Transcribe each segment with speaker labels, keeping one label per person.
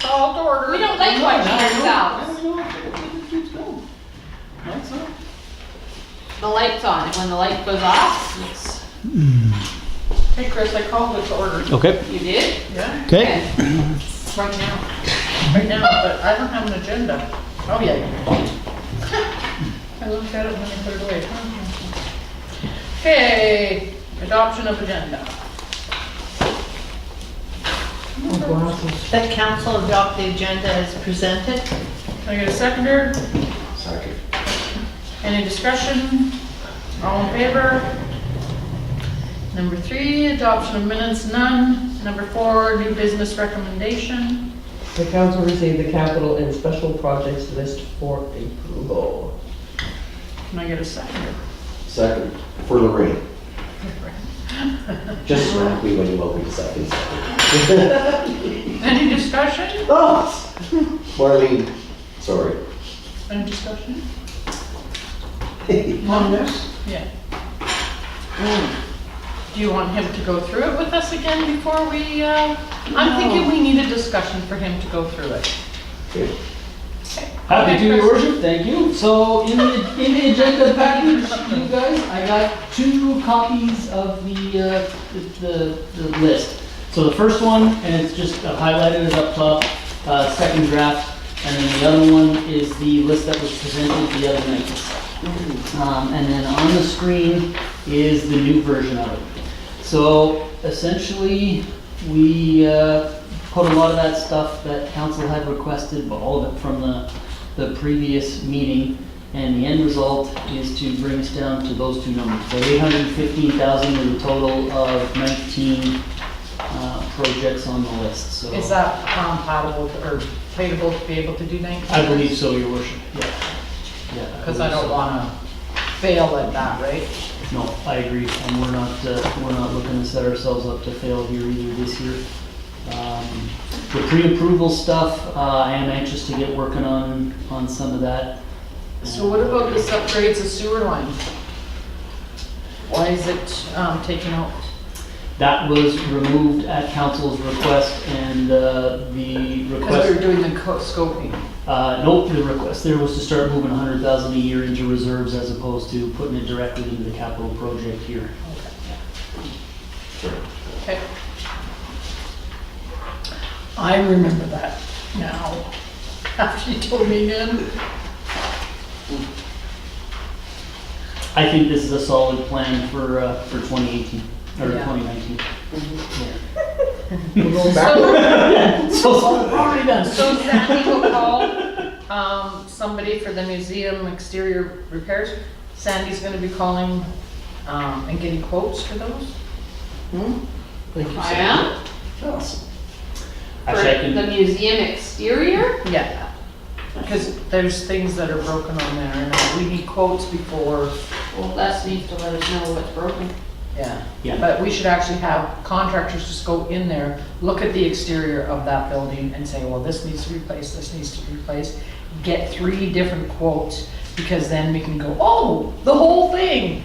Speaker 1: called to order.
Speaker 2: We don't like
Speaker 1: No,
Speaker 2: watching
Speaker 1: no, no.
Speaker 2: ourselves.
Speaker 1: No, no, it keeps going. No, it's not.
Speaker 2: The light's on, and when the light goes off, yes.
Speaker 1: Hey, Chris, I called it to order.
Speaker 3: Okay,
Speaker 2: You did?
Speaker 1: Yeah,
Speaker 3: okay.
Speaker 1: right now. Right now, but I don't have an agenda. Oh, yeah. you do. I looked at it when I put it away. Okay, adoption of agenda.
Speaker 4: That council adopt the agenda as presented?
Speaker 1: Can I get a seconder?
Speaker 5: Second.
Speaker 1: Any discussion? All in favor? Number three, adoption of minutes, none. Number four, new business recommendation.
Speaker 6: The council received the capital and special projects list for approval.
Speaker 1: Can I get a seconder?
Speaker 5: Second, for Lorraine. Just smack me when you want me to second.
Speaker 1: Any discussion?
Speaker 5: Oh, Marlene, sorry.
Speaker 1: Any discussion?
Speaker 5: On this?
Speaker 1: Yeah.
Speaker 3: Hmm.
Speaker 1: Do you want him to go through it with us again before we, uh, I'm thinking we need a discussion for him to go through it.
Speaker 3: Happy to, your worship, thank you. So in the, in the agenda package, you guys, I got two copies of the, uh, the, the- the list. So the first one, and it's just highlighted as up top, uh, second draft, and then the other one is the list that was presented the other night. Um, and then on the screen is the new version of it. So essentially, we uh, put a lot of that stuff that council had requested, but all of it from the, the previous meeting. And the end result is to bring us down to those two numbers. So eight hundred and fifteen thousand is a total of nineteen uh, projects on the list, so.
Speaker 1: Is that compatible or capable to be able to do 19?
Speaker 3: I believe so, your worship, yeah. Yeah,
Speaker 1: Because I don't
Speaker 3: believe so.
Speaker 1: wanna fail at that, right?
Speaker 3: No, I agree, and we're not, uh, we're not looking to set ourselves up to fail here either this year. Um, The pre-approval stuff, uh, I am anxious to get working on, on some of that.
Speaker 1: So what about this upgrades of sewer line? Why is it um, taken out?
Speaker 3: That was removed at council's request, and uh, the
Speaker 1: Because we were
Speaker 3: request,
Speaker 1: doing the co- scoping.
Speaker 3: uh, nope, the request there was to start moving a hundred thousand a year into reserves as opposed to putting it directly into the capital project here.
Speaker 1: Okay. I remember that now, after you told me again.
Speaker 3: I think this is a solid plan for, uh, for twenty eighteen, or
Speaker 1: Yeah.
Speaker 3: twenty nineteen.
Speaker 1: So,
Speaker 3: So, so, we're already done.
Speaker 1: so Sandy will call, um, somebody for the museum exterior repairs. Sandy's gonna be calling, um, and getting quotes for those?
Speaker 2: I am.
Speaker 3: Actually, I
Speaker 2: For the
Speaker 3: can,
Speaker 2: museum exterior?
Speaker 1: Yeah. Cause there's things that are broken on there, and we need quotes before,
Speaker 2: Well, Les needs to let us know what's broken.
Speaker 1: yeah.
Speaker 3: yeah,
Speaker 1: But we should actually have contractors just go in there, look at the exterior of that building and say, well, this needs to be replaced, this needs to be replaced. Get three different quotes, because then we can go, oh, the whole thing.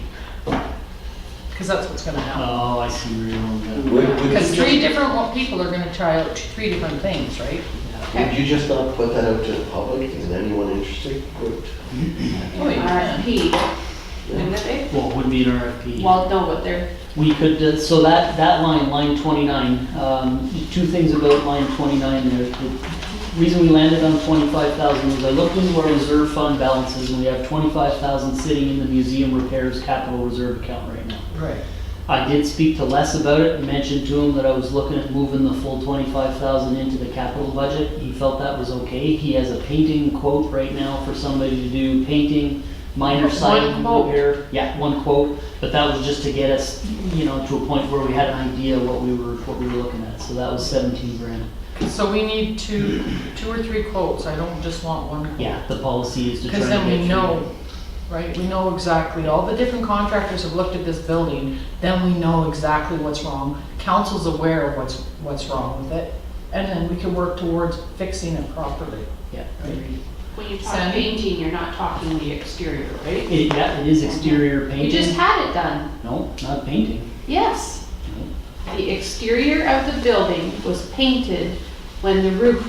Speaker 1: Because that's what's gonna happen.
Speaker 3: oh, I see where you're going with
Speaker 5: Would, would
Speaker 1: Because
Speaker 5: you
Speaker 1: three
Speaker 5: just,
Speaker 1: different wa- people are gonna try out three different things, right?
Speaker 5: would you just not put that out to the public and anyone interested would?
Speaker 1: Oh, you can.
Speaker 2: RFP. Wouldn't it
Speaker 3: that. Well, it would be an
Speaker 2: be?
Speaker 3: RFP.
Speaker 2: Well, no, but they're,
Speaker 3: We could, uh, so that, that line, line twenty-nine, um, two things about line twenty-nine there. The reason we landed on twenty-five thousand is I looked into our reserve fund balances and we have twenty-five thousand sitting in the museum repairs capital reserve account right now.
Speaker 1: Right.
Speaker 3: I did speak to Les about it and mentioned to him that I was looking at moving the full twenty-five thousand into the capital budget. He felt that was okay. He has a painting quote right now for somebody to do painting, minor
Speaker 1: One
Speaker 3: siding
Speaker 1: quote.
Speaker 3: repair. Yeah, one quote, but that was just to get us, you know, to a point where we had an idea what we were, what we were looking at. So that was seventeen grand.
Speaker 1: So we need two, two or three quotes, I don't just want one quote.
Speaker 3: Yeah, the policy is to try
Speaker 1: Because
Speaker 3: and
Speaker 1: then
Speaker 3: get
Speaker 1: we
Speaker 3: you-
Speaker 1: know, right, we know exactly, all the different contractors have looked at this building, then we know exactly what's wrong. Council's aware of what's, what's wrong with it, and then we can work towards fixing it properly.
Speaker 3: Yeah.
Speaker 2: when you talk
Speaker 1: Sandy?
Speaker 2: painting, you're not talking the exterior, right?
Speaker 3: It, yeah, it is exterior
Speaker 2: You just
Speaker 3: painting.
Speaker 2: had it done.
Speaker 3: No, not painting.
Speaker 2: Yes. The exterior of the building was painted when the roof